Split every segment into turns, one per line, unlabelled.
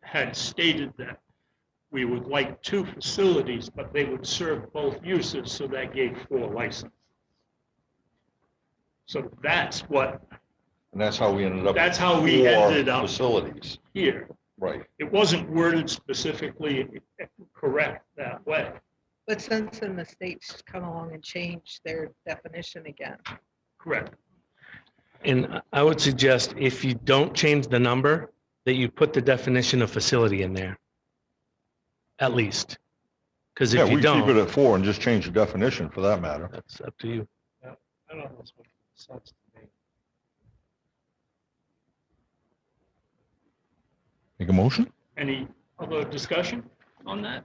had stated that we would like two facilities, but they would serve both uses, so that gave four licenses. So that's what,
And that's how we ended up.
That's how we
with four
ended up.
Facilities,
here,
right.
it wasn't worded specifically correct that way.
But since then, the states come along and change their definition again.
Correct.
And I- I would suggest if you don't change the number, that you put the definition of facility in there. At least. Because
Yeah,
if
we
you
keep it
don't,
at four and just change the definition for that matter.
that's up to you.
I don't know. if this makes sense to me.
Make a motion?
Any other discussion on that?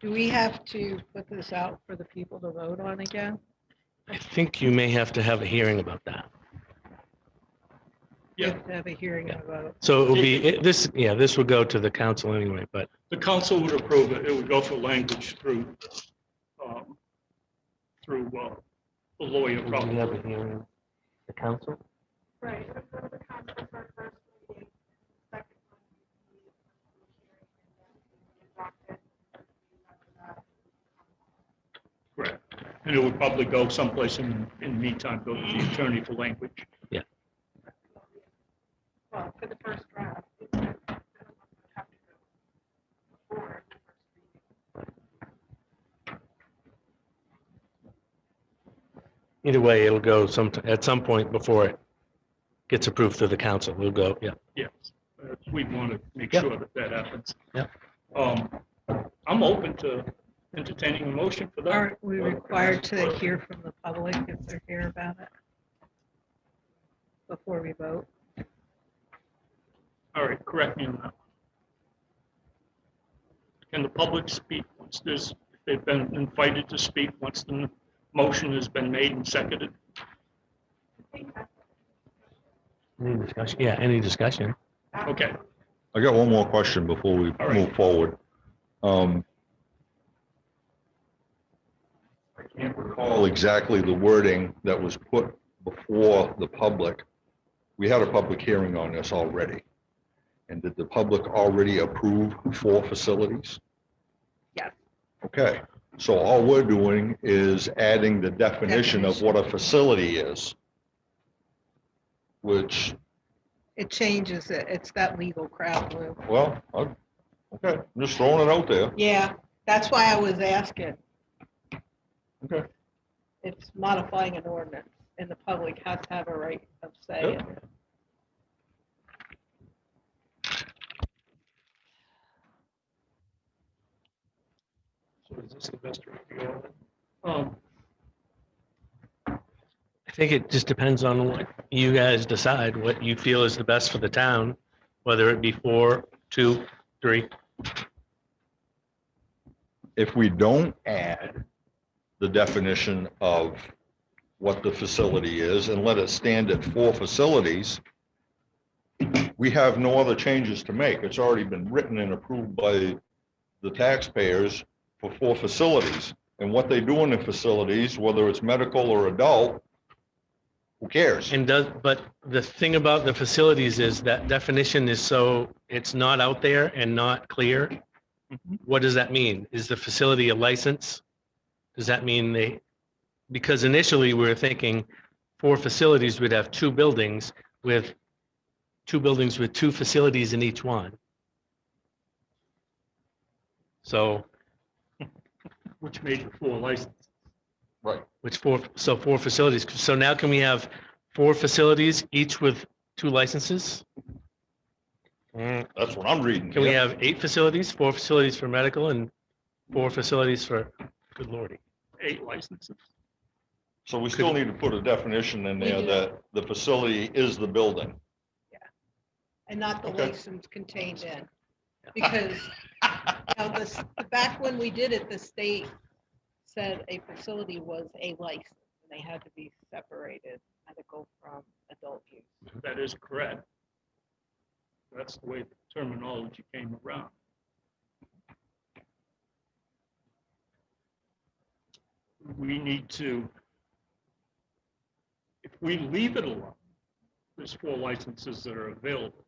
Do we have to put this out for the people to vote on again?
I think you may have to have a hearing about that.
We
Yeah,
have to Have a hearing and a vote.
So it will be, it- this, yeah, this would go to the council anyway, but
the council would approve it. It would go for language through, um, through uh, the lawyer
we can
probably.
have a hearing. The council?
Right. so go to the conference for first meeting, second one, we need a public hearing, and then we adopt it.
Correct. And it would probably go someplace in, in the meantime, go to the attorney for language.
Well, for the first draft. it's not- I don't want to have to go before the first meeting.
Either way, it'll go some, at some point before it gets approved through the council. We'll go, yeah.
Yes, Uh, we want to make
Yep.
sure that that happens.
Yep.
Um, I'm open to entertaining a motion for that.
Aren't we required to hear from the public if they're here about it? Before we vote?
All right, correct me on that. Can the public speak once there's, if they've been invited to speak, once the motion has been made and seconded?
Any discussion? Yeah, any discussion.
Ah.
Okay,
I got one more question before we
All right.
move forward. Um, I can't recall exactly the wording that was put before the public. We had a public hearing on this already. And did the public already approve four facilities?
Yes.
Okay, so all we're doing is adding the definition of what a facility is, which
It changes it. It's that legal crowd, Lou.
Well, I, okay, I'm just throwing it out there.
Yeah, that's why I was asking.
Okay.
It's modifying an ordinance and the public has to have a right of say.
Yep.
in it.
so is this the best review? Um,
I think it just depends on what you guys decide, what you feel is the best for the town, whether it be four, two, three.
If we don't add the definition of what the facility is and let it stand at four facilities, we have no other changes to make. It's already been written and approved by the taxpayers for four facilities. And what they do in the facilities, whether it's medical or adult, who cares?
And does, but the thing about the facilities is that definition is so, it's not out there and not clear.
Mhm.
What does that mean? Is the facility a license? Does that mean they, because initially we were thinking four facilities would have two buildings with, two buildings with two facilities in each one. So,
Which made it four licenses.
which four, so four facilities. So now can we have four facilities, each with two licenses?
That's what I'm reading.
Can we
here.
have eight facilities, four facilities for medical and four facilities for, good lordy.
eight licenses.
So we still need to put a definition in
We
there
do.
that the facility is the building.
And not the
Okay.
license contained in. Because now this, back when we did it, the state said a facility was a license. and They had to be separated, medical from adult use.
That is correct. That's the way the terminology came around. We need to, if we leave it alone, there's four licenses that are available.